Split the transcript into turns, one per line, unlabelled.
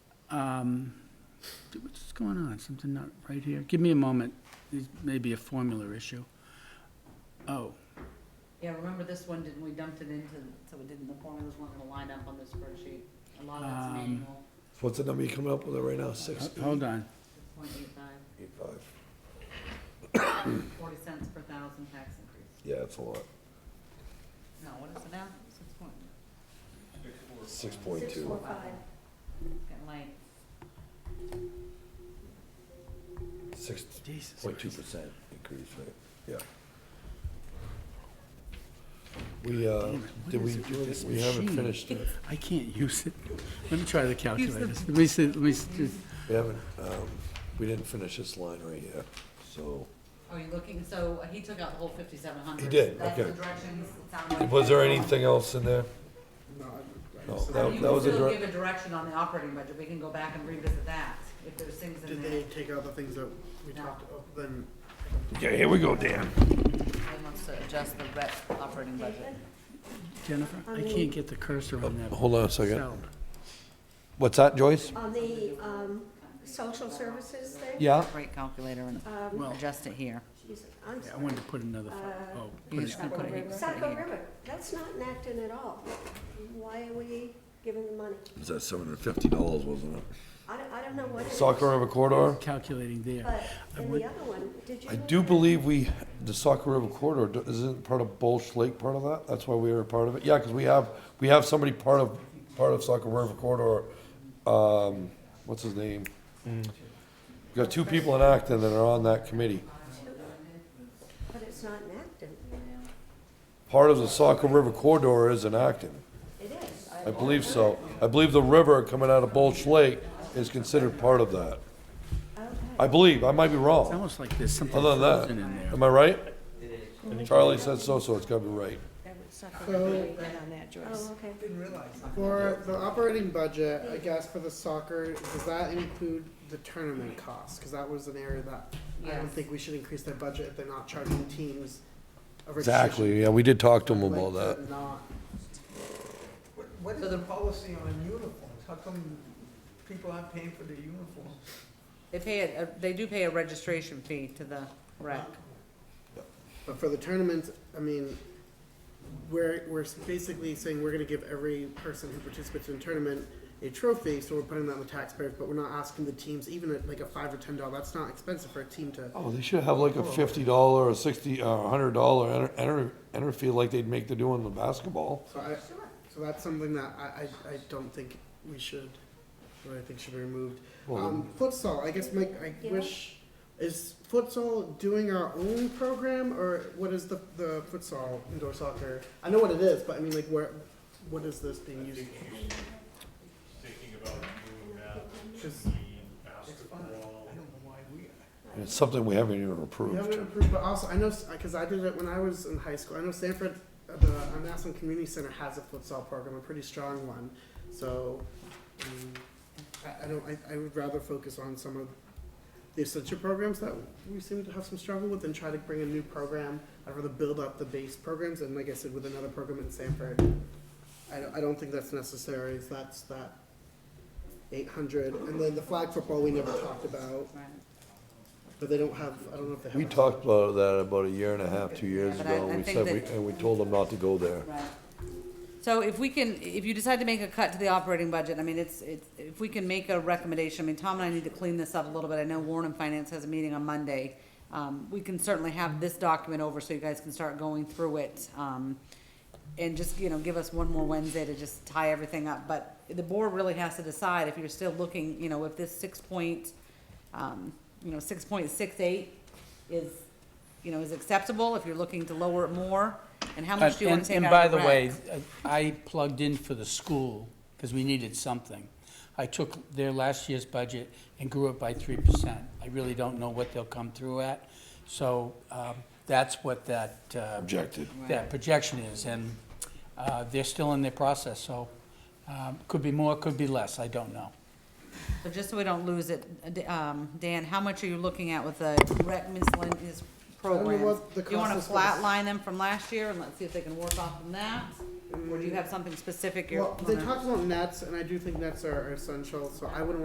Um, What's going on? Something not right here? Give me a moment. This may be a formula issue. Oh,
Yeah, remember this one, didn't, we dumped it into, so it didn't, the formulas weren't gonna line up on the spreadsheet. A lot of that's
Um,
manual,
What's the number you're coming up with right now? Six?
h- hold on.
six point eight five,
Eight five.
forty cents per thousand tax increase.
Yeah, that's a lot.
No, what is it now? Six point,
Six point
Six
two.
four five.
getting late.
Six
Jesus
point two
Christ.
percent increase, right? Yeah. We, uh,
Damn it, what
did we
is it
do,
with
it?
this
we haven't
machine?
finished it.
I can't use it. Let me try the calculator. Let me see, let me, s- just-
We haven't, um, we didn't finish this line right here, so.
Are you looking, so uh, he took out the whole fifty-seven hundred.
He did, okay.
That's the directions, it sounded like.
Was there anything else in there? No.
You
that, that
can
was a
still give
direct,
a direction on the operating budget, we can go back and revisit that, if there's things in
Did
there.
they take out the things that we
No.
talked about, then
yeah, here we go, Dan.
He wants to adjust the rec operating budget.
Jennifer, I can't get the cursor on that.
Hold on a second.
cell.
What's that, Joyce?
On the, um, social services thing,
Yeah?
Rate calculator and
Um,
Well,
adjust it here.
geez, I'm
yeah, I
sorry.
wanted to put another, pho- oh, put it-
He's gonna put it- he put it
Saco
here.
River, that's not in Acton at all. Why are we giving the money?
Was that seven hundred and fifty dollars, wasn't it?
I don't, I don't know what it is.
Soccer River Corridor?
calculating there.
But in the other one, did you?
I
look
do
at-
believe we, the Saco River corridor, do- isn't part of Bolsh Lake part of that? That's why we are a part of it? Yeah, because we have, we have somebody part of, part of Saco River corridor, um, what's his name? We got two people in Acton that are on that committee.
But it's not in Acton.
Part of the Saco River corridor is in Acton.
It is.
I believe so. I believe the river coming out of Bolsh Lake is considered part of that. I believe, I might be
It's
wrong.
almost like there's something
Other
frozen
than
in there.
that, am I right? Charlie said so, so it's gotta be right.
So-
on that, Joyce.
Oh, okay.
for the operating budget, I guess for the soccer, does that include the tournament costs? Because that was an area that I don't
Yes.
think we should increase their budget if they're not charging teams. a registration
Exactly, yeah, we did talk to him
like
about that.
they're Not,
What- What is the policy on uniforms? How come people aren't paying for their uniforms?
They pay, a- a- they do pay a registration fee to the rec.
but for the tournaments, I mean, we're, we're basically saying we're gonna give every person who participates in a tournament a trophy, so we're putting that on the taxpayers, but we're not asking the teams, even at like a five or ten dollar, that's not expensive for a team to
Oh, they should have like a fifty dollar or sixty or a hundred dollar enter, enter, enter fee like they'd make to do on the basketball.
So I, so that's something that I, I, I don't think we should, or I think should be removed.
Well,
Um, futsal, I guess Mike, I
Yeah.
wish, is futsal doing our own program, or what is the, the futsal indoor soccer? I know what it is, but I mean, like, where, what is this being used?
thinking about doing that,
Cause
basketball.
I don't know why we are.
And it's something we haven't even
we haven't
approved.
approved, but also, I know, s- cause I did it when I was in high school, I know Sanford, uh, the, uh, Nassau Community Center has a futsal program, a pretty strong one, so, um, I, I don't, I, I would rather focus on some of the essential programs that we seem to have some struggle with and try to bring a new program, I'd rather build up the base programs, and like I said, with another program in Sanford, I don't, I don't think that's necessary, if that's that eight hundred, and then the flag football we never talked about,
Right.
but they don't have, I don't know if they have.
We
a-
talked about that about a year and a half, two years
But I-
ago,
I
and we
think
said, we
that-
and we told them not to go there.
Right. So if we can, if you decide to make a cut to the operating budget, I mean, it's, it's, if we can make a recommendation, I mean, Tom and I need to clean this up a little bit. I know Warren and Finance has a meeting on Monday. Um, we can certainly have this document over so you guys can start going through it. Um, and just, you know, give us one more Wednesday to just tie everything up. But the board really has to decide if you're still looking, you know, if this six point, um, you know, six point six eight is, you know, is acceptable, if you're looking to lower it more, and how much do you
Uh,
want
And,
to take
and
out
by
of
the
the
way,
rec?
I plugged in for the school, because we needed something. I took their last year's budget and grew it by three percent. I really don't know what they'll come through at, so, um, that's what that, uh,
Objected.
that projection is, and, uh, they're still in their process, so, um, could be more, could be less, I don't know.
So just so we don't lose it, uh, D- um, Dan, how much are you looking at with the rec miscellaneous
don't know
programs?
what the
Do you want
cost
to
is for this.
flatline them from last year and let's see if they can work off from that? Or do you have something specific you're?
Well, they
wanna-
talked about nets, and I do think nets are are essential, so I wouldn't